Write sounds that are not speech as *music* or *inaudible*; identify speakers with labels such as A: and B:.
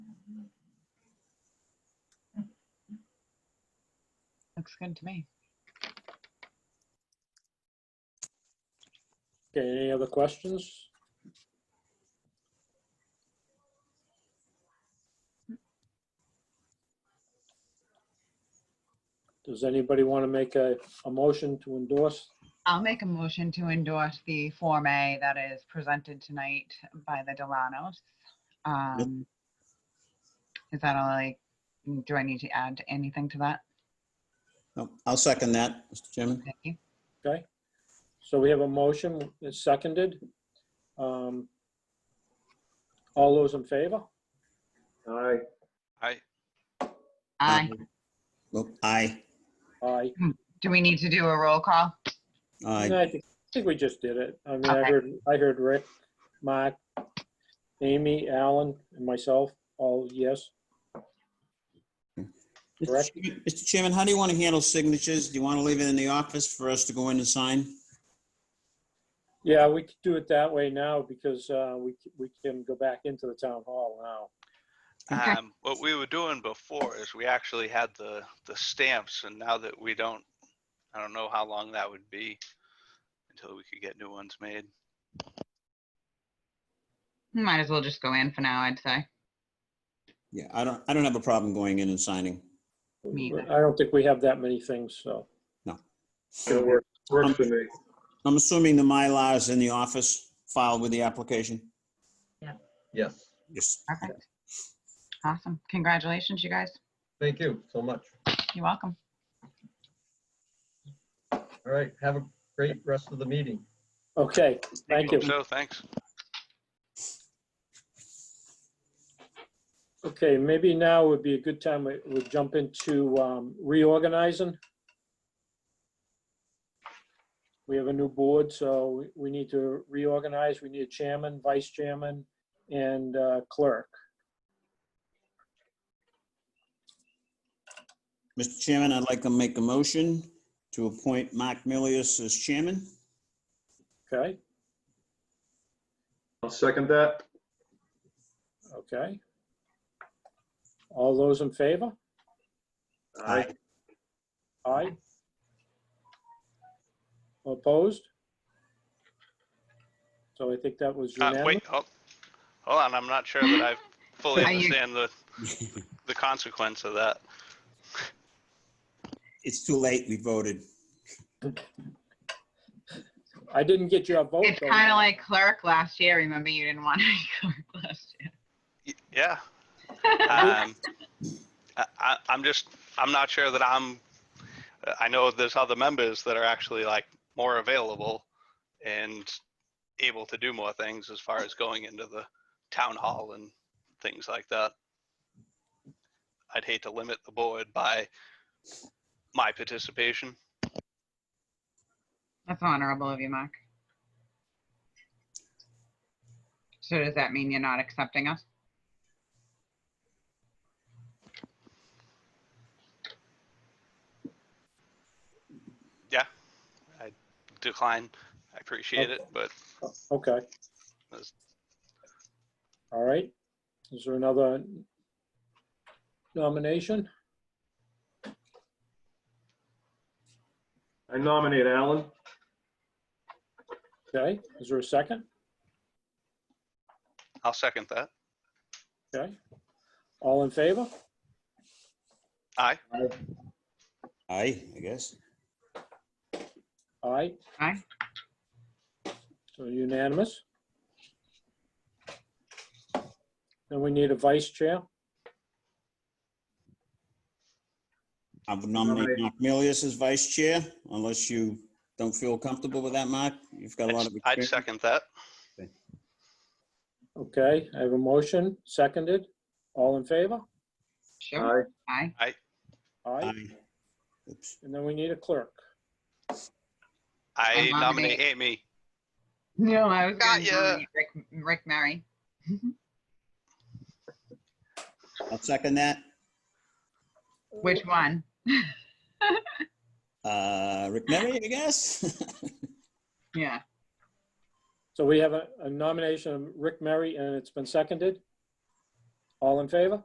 A: Looks good to me.
B: Okay, any other questions? Does anybody want to make a, a motion to endorse?
A: I'll make a motion to endorse the Form A that is presented tonight by the Delanos. Um, Is that all I, do I need to add anything to that?
C: No, Oh, I'll second that, Mr. Chairman.
A: Thank you.
B: Okay, so we have a motion, it's seconded. Um, All those in favor?
D: Aye.
E: Aye.
A: Aye.
C: Well, Oh, Aye,
B: Aye.
A: Do we need to do a roll call?
B: No,
C: aye.
B: I think, I think we just did it. I mean, I
A: Okay.
B: heard, I heard Rick, Mark, Amy, Alan, and myself, all yes.
C: Mr.
B: Correct.
C: Chairman- Mr. Chairman, how do you want to handle signatures? Do you want to leave it in the office for us to go in and sign?
B: Yeah, we could do it that way now because uh, we, c- we can go back into the town hall now.
A: Okay.
E: Um, what we were doing before is we actually had the, the stamps and now that we don't, I don't know how long that would be until we could get new ones made.
A: Might as well just go in for now, I'd say.
C: Yeah, I don't, I don't have a problem going in and signing.
A: Me either.
B: I don't think we have that many things, so.
D: It works, works for me.
C: I'm assuming the Mylar is in the office filed with the application?
D: Yes.
C: Yes.
A: Perfect. Awesome. Congratulations, you guys.
D: Thank you so much.
A: You're welcome.
D: All right. Have a great rest of the meeting.
B: Okay, thank you.
E: Hope So, thanks.
B: Okay, maybe now would be a good time, we- we'll jump into um, reorganizing. We have a new board, so we- we need to reorganize. We need a chairman, vice chairman, and uh, clerk.
C: Mr. Chairman, I'd like to make a motion to appoint Mark Milius as chairman.
B: Okay,
F: I'll second that.
B: okay. All those in favor?
F: Aye.
B: Aye. Opposed? So I think that was
E: Uh,
B: unanimous.
E: wait, hold, hold on, I'm not sure that I fully
A: Are you-
E: understand the,
B: *laughs*
E: the consequence of that.
C: It's too late, we voted.
B: I didn't get your vote.
A: It's
B: though.
A: kind of like clerk last year. Remember, you didn't want to be *laughs* clerk last year.
E: Y- Yeah. Um, I, I, I'm just, I'm not sure that I'm, I know there's other members that are actually like more available and able to do more things as far as going into the town hall and things like that. I'd hate to limit the board by my participation.
A: That's honorable of you, Mark. So does that mean you're not accepting us?
E: Decline, I appreciate it, but
B: Okay.
E: That's-
B: All right. Is there another nomination?
F: I nominate Alan.
B: Okay. Is there a second?
E: I'll second that.
B: Okay. All in favor?
E: Aye.
C: Aye, I guess.
B: Aye.
A: Aye.
B: So unanimous. Then we need a vice chair.
C: I would nominate Mark Milius as vice chair, unless you don't feel comfortable with that, Mark. You've got a lot of
E: I'd
C: experience.
E: second that.
B: Okay, I have a motion, seconded. All in favor?
A: Sure. Aye.
B: Aye.
C: Aye. Oops.
B: And then we need a clerk.
E: I
A: I nominate-
E: nominate Amy.
A: No, I was
E: Got
A: going
E: ya.
A: to Rick, Rick Murray.
C: I'll second that.
A: Which one?
C: Uh, Rick Mary, I guess? *laughs*
A: Yeah.
B: So we have a a nomination of Rick Mary, and it's been seconded. All in favor?